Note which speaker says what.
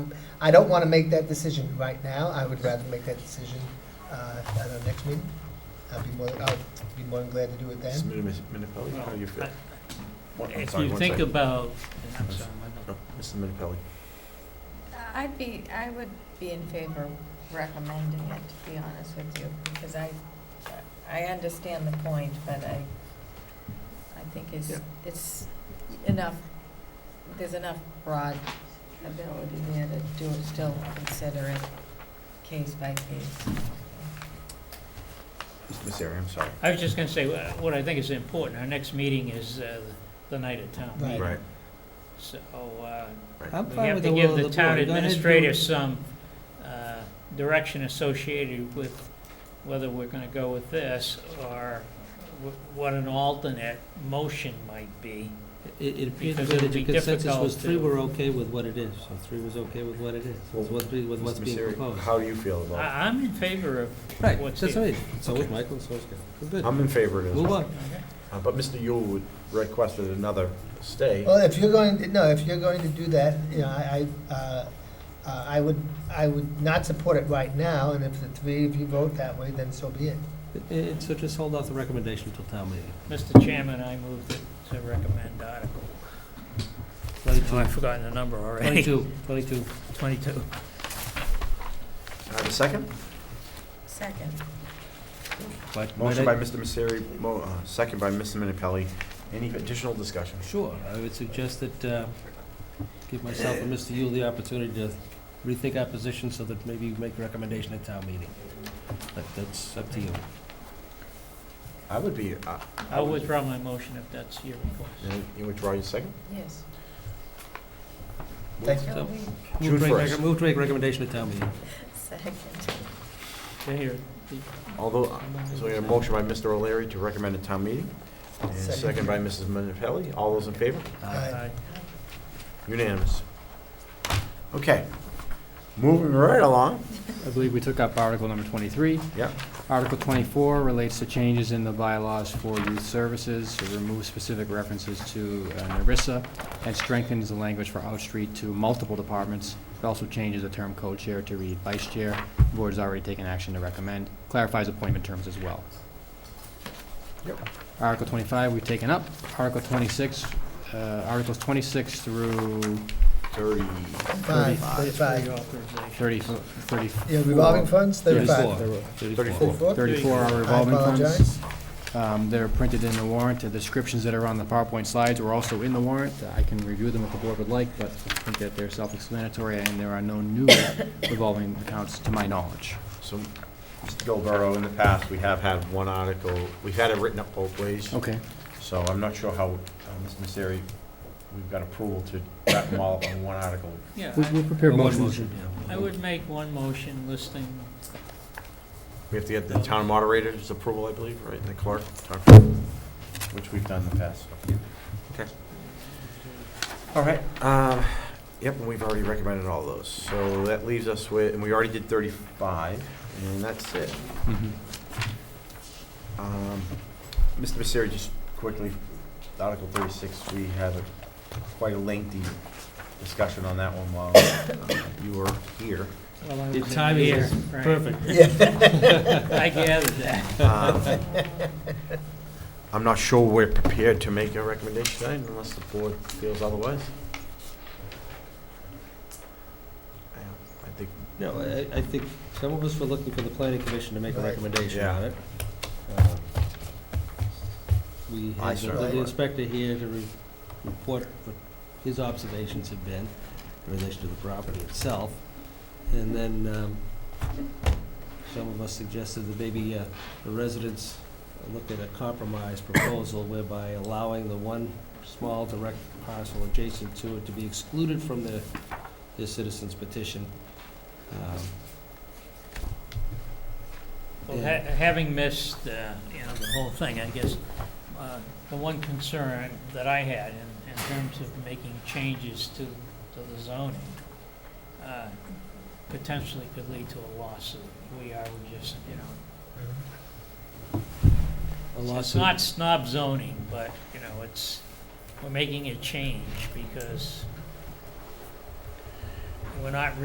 Speaker 1: I don't want to make that decision right now. I would rather make that decision uh, at our next meeting. I'd be more, I'd be more than glad to do it then.
Speaker 2: Mrs. Minipelli, how do you feel?
Speaker 3: Well,
Speaker 2: One- I'm
Speaker 3: If
Speaker 2: sorry,
Speaker 3: you
Speaker 2: one
Speaker 3: think
Speaker 2: second.
Speaker 3: about, I'm sorry, my bad.
Speaker 2: Oh, Mrs. Minipelli.
Speaker 4: I'd be, I would be in favor of recommending it, to be honest with you, because I, I understand the point, but I, I think it's,
Speaker 2: Yeah.
Speaker 4: it's enough, there's enough broad ability there to do it, still consider it case by case.
Speaker 2: Ms. Zeri, I'm sorry.
Speaker 3: I was just going to say, wha- what I think is important, our next meeting is uh, the night of town
Speaker 1: Right.
Speaker 3: meeting.
Speaker 2: Right.
Speaker 3: So uh,
Speaker 5: I'm
Speaker 3: we
Speaker 5: fine
Speaker 3: have
Speaker 5: with
Speaker 3: to
Speaker 5: the
Speaker 3: give
Speaker 5: will of
Speaker 3: the
Speaker 5: the board.
Speaker 3: town
Speaker 5: Go ahead and do it.
Speaker 3: administrator some uh, direction associated with whether we're going to go with this or wh- what an alternate motion might be.
Speaker 5: It, it appears
Speaker 3: Because
Speaker 5: that
Speaker 3: it'd
Speaker 5: the
Speaker 3: be
Speaker 5: consensus
Speaker 3: difficult
Speaker 5: was three
Speaker 3: to-
Speaker 5: were okay with what it is, so three was okay with what it is, with what, three- with what's
Speaker 2: Mr.
Speaker 5: being
Speaker 2: Misery,
Speaker 5: proposed. Ah,
Speaker 2: How do you feel about
Speaker 3: I- I'm in favor of
Speaker 5: Right,
Speaker 3: what's
Speaker 5: that's
Speaker 3: here.
Speaker 5: right, so was Michael, so was Ken, we're
Speaker 2: it?
Speaker 5: good,
Speaker 2: I'm in favor of it as
Speaker 5: move
Speaker 2: well.
Speaker 5: on.
Speaker 3: Okay.
Speaker 2: Uh, But Mr. Yule would- requested another stay.
Speaker 1: Well, if you're going, to no, if you're going to do that, you know, I, I, uh, uh, I would, I would not support it right now, and if the three of you vote that way, then so be it.
Speaker 5: It- it- So just hold off the recommendation until town meeting.
Speaker 3: Mr. Chairman, I move that- to recommend Article, oh, I've
Speaker 5: Twenty-two,
Speaker 3: forgotten the number already.
Speaker 5: twenty-two, twenty-two.
Speaker 3: 22.
Speaker 2: Can I have a second?
Speaker 4: Second.
Speaker 5: But might
Speaker 2: Motion by
Speaker 5: I-
Speaker 2: Mr. Misery, mo- uh, second by Mr. Minipelli. Any additional discussion?
Speaker 5: Sure, I would suggest that, uh, give myself and Mr. Yule the opportunity to rethink our position so that maybe you make a recommendation at town meeting. But that's up to you.
Speaker 2: I would be, uh,
Speaker 3: I'll withdraw my motion if that's your request.
Speaker 2: you- you withdraw your second?
Speaker 4: Yes.
Speaker 1: Thank
Speaker 5: So-
Speaker 4: Shall we-
Speaker 2: June
Speaker 5: Move to make-
Speaker 2: 1st.
Speaker 5: Move to make recommendation at town meeting.
Speaker 4: Second.
Speaker 3: Okay, Here,
Speaker 2: Although, uh, so we have a motion by Mr. O'Leary to recommend a town meeting, and
Speaker 1: Second.
Speaker 2: second by Mrs. Minipelli. All those in favor?
Speaker 5: Aye.
Speaker 1: Aye.
Speaker 2: Unanimous. Okay, moving right along.
Speaker 6: I believe we took up Article number 23.
Speaker 2: Yep.
Speaker 6: Article 24 relates to changes in the bylaws for youth services, to remove specific references to uh, NERISA, and strengthens the language for outstreet to multiple departments. It also changes the term co-chair to read vice chair. The Board's already taken action to recommend, clarifies appointment terms as well.
Speaker 2: Yep.
Speaker 6: Article 25, we've taken up. Article 26, uh, Articles 26 through
Speaker 2: Thirty.
Speaker 1: Five,
Speaker 3: For your
Speaker 1: thirty-five.
Speaker 3: authorization.
Speaker 6: 30 34.
Speaker 1: Yeah, revolving funds, thirty-five.
Speaker 2: Thirty-four.
Speaker 6: Thirty-four are
Speaker 1: I
Speaker 6: revolving funds.
Speaker 1: apologize.
Speaker 6: Um, They're printed in the warrant. The descriptions that are on the PowerPoint slides are also in the warrant. I can review them if the board would like, but I think that they're self-explanatory, and there are no new revolving accounts to my knowledge.
Speaker 2: So, Mr. Gilberto, in the past, we have had one article, we've had it written up both ways.
Speaker 6: Okay.
Speaker 2: So I'm not sure how, uh, Mr. Misery, we've got approval to wrap them all up in one article.
Speaker 3: Yeah,
Speaker 6: We'll we'll prepare
Speaker 5: One
Speaker 6: motions.
Speaker 5: motion, yeah.
Speaker 3: I I would make one motion listing,
Speaker 2: We have to get the town moderator's approval, I believe, right, and the clerk, town- which we've done in the past. Okay. All right, um, yep, and we've already recommended all those. So that leaves us with, and we already did 35, and that's it.
Speaker 6: Mhm.
Speaker 2: Um, Mr. Misery, just quickly, Article 36, we had a- quite a lengthy discussion on that one while uh, you were here.
Speaker 3: well, I
Speaker 5: The
Speaker 3: was in
Speaker 5: timing
Speaker 3: here,
Speaker 5: is
Speaker 3: right.
Speaker 5: perfect.
Speaker 3: I gathered that.
Speaker 2: Um, I'm not sure we're prepared to make a recommendation tonight unless the board feels otherwise. I I think,
Speaker 5: No, I, I think some of us were looking for the planning commission to make a
Speaker 1: Right.
Speaker 5: recommendation
Speaker 2: Yeah.
Speaker 5: on it. Uh, We
Speaker 2: I
Speaker 5: had the
Speaker 2: certainly
Speaker 5: building
Speaker 2: would.
Speaker 5: inspector here to re- report what his observations have been in relation to the property itself. And then, um, some of us suggested that maybe, uh, the residents look at a compromise proposal whereby allowing the one small direct parcel adjacent to it to be excluded from the, the citizens petition. Um,
Speaker 3: Well,
Speaker 5: Yeah.
Speaker 3: ha- having missed, uh, you know, the whole thing, I guess, uh, the one concern that I had in, in terms of making changes to, to the zoning, uh, potentially could lead to a lawsuit. We are just, you know,
Speaker 5: A
Speaker 3: It's
Speaker 5: lawsuit.
Speaker 3: not snob zoning, but, you know, it's, we're making a change because we're not